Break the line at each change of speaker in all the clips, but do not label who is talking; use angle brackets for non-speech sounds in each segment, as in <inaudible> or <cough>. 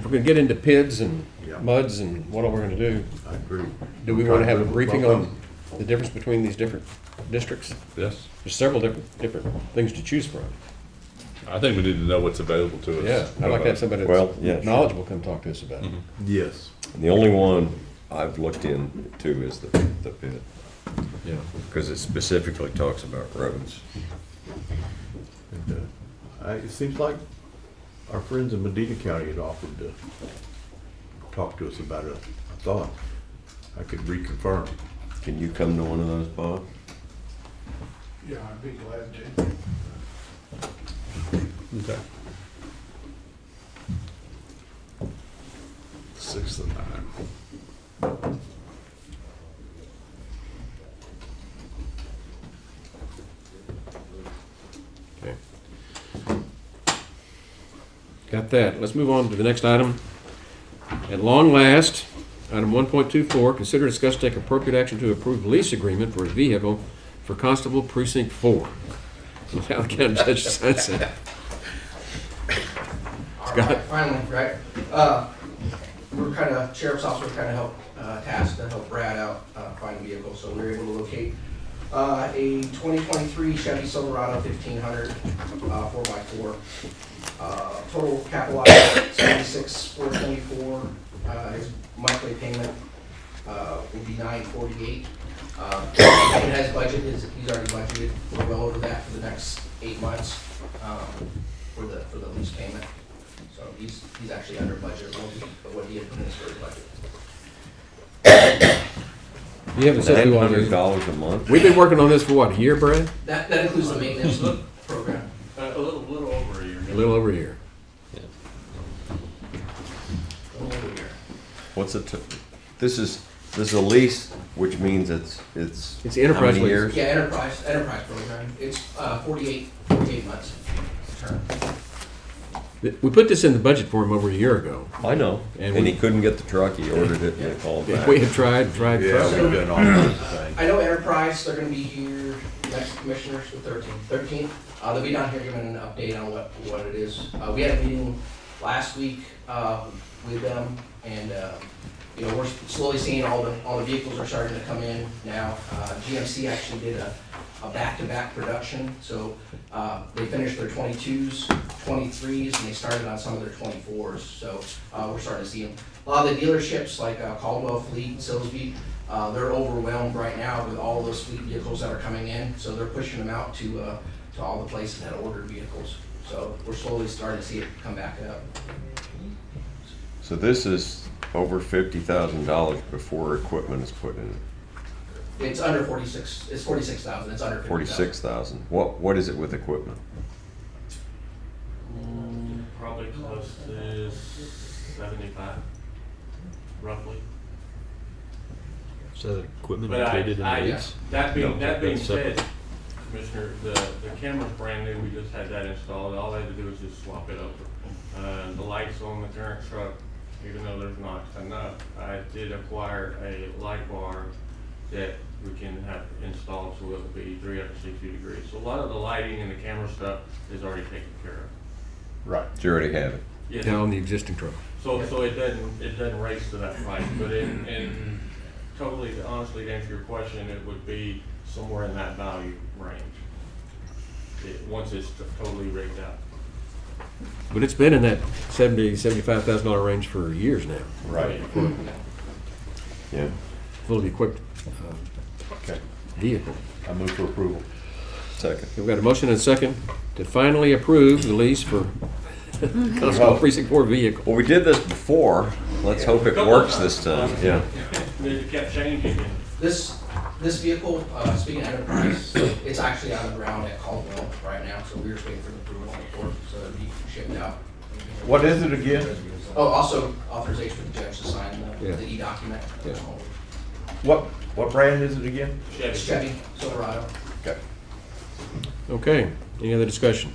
gonna get into PIDs and
Yeah.
MUDs and what all we're gonna do.
I agree.
Do we wanna have a briefing on the difference between these different districts?
Yes,
There's several different, different things to choose from.
I think we need to know what's available to us.
Yeah, I'd like to have somebody
Well, Mm-hmm. yeah,
that's
sure.
knowledgeable come talk to us about it.
Yes.
The only one I've looked into is the, the pit,
Yeah.
because it specifically talks about roads.
And, uh, I- It seems like our friends in Medina County had offered to talk to us about it. I thought I could reconfirm.
Can you come to one of those, Bob?
Yeah, I'd be glad to.
Okay. Six to nine.
Okay. Got that. Let's move on to the next item. At long last, item one point two four, consider discuss take appropriate action to approve lease agreement for a vehicle for Constable Precinct Four. <laughs> Without the county judge signs it.
All right, Finally, right? Uh, We're kind of, sheriff's officer kind of helped, uh, tasked to help Brad out, uh, find a vehicle, so we were able to locate uh, a 2023 Chevy Silverado 1500, uh, 4x4. Uh, Total capital seventy-six four twenty-four. uh, His monthly payment uh, will be 948. Uh, He has budget, is- he's already budgeted, we're well over that for the next eight months um, for the, for the lease payment. So he's, he's actually under budget, what he- what he had put in his first budget.
You haven't said
Nine
who
hundred
on it.
dollars a month?
We've been working on this for what, a year, Brad?
That, that includes the maintenance program.
A little, little over a year.
A little over a year.
What's it, this is, this is a lease, which means it's, it's.
It's enterprise
how many
lease.
years?
Yeah, enterprise, enterprise program, it's uh, 48, 48 months term.
Th- We put this in the budget for him over a year ago.
I know,
And
and
we-
he couldn't get the truck, he ordered it and they called back.
We have tried, tried,
Yeah,
tried.
we've done all kinds of things.
I know Enterprise, they're gonna be here, next commissioners, the thirteenth, thirteenth, uh, they'll be down here giving an update on what, what it is. Uh, we had a meeting last week, uh, with them, and, uh, you know, we're slowly seeing all the, all the vehicles are starting to come in now. Uh, GMC actually did a, a back-to-back production, so, uh, they finished their twenty-twos, twenty-threes, and they started on some of their twenty-fours, so, uh, we're starting to see them. A lot of the dealerships, like uh, Caldwell Fleet, Silsby, uh, they're overwhelmed right now with all those fleet vehicles that are coming in, so they're pushing them out to, uh, to all the places that ordered vehicles. So we're slowly starting to see it come back up.
So this is over fifty thousand dollars before equipment is put in,
It's under forty-six, it's forty-six thousand, it's under fifty thousand.
forty-six thousand. What, what is it with equipment?
Probably close to seventy-five, roughly.
Is that equipment
But I,
included in the
I,
lease?
that being,
No,
that being
that's
said,
separate.
Commissioner, the, the camera's brand new, we just had that installed, all I had to do was just swap it over. Uh, the lights on the current truck, even though there's not enough, I did acquire a light bar that we can have installed, so it'll be three hundred and sixty degrees. So a lot of the lighting and the camera stuff is already taken care of.
Right.
Do you already have it?
Yes,
Down the existing truck.
So, so it doesn't, it doesn't race to that price, but in, in totally, honestly, to answer your question, it would be somewhere in that value range. It, once it's totally rigged out.
But it's been in that seventy, seventy-five thousand dollar range for years now,
Right. Yeah.
fully equipped uh,
Okay.
vehicle.
I move for approval.
Second.
We've got a motion and a second to finally approve the lease for Constable Precinct Four vehicle.
Well, we did this before. Let's hope it works this time.
<laughs>
Yeah.
It kept changing, and
This, this vehicle, uh, speaking of enterprise, it's actually on the ground at Caldwell right now, so we're just waiting for the approval on the court, so it'll be shipped out.
What is it again?
Oh, also authorization for the judge to sign
Yeah.
the, the E document.
Yeah.
What, what brand is it again?
It's
Chevy,
Chevy Silverado.
Okay.
Okay, any other discussion?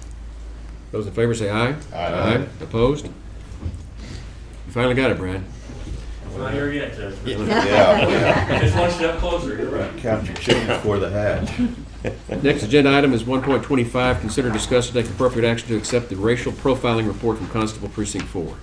Those in favor say aye.
Aye.
Opposed? You finally got it, Brad.
it's not here yet, Judge.
Yeah.
<laughs> It's one step closer, you're right.
Count your chickens before the hatch.
Next agenda item is one point twenty-five, consider discuss and take appropriate action to accept the racial profiling report from Constable Precinct Four.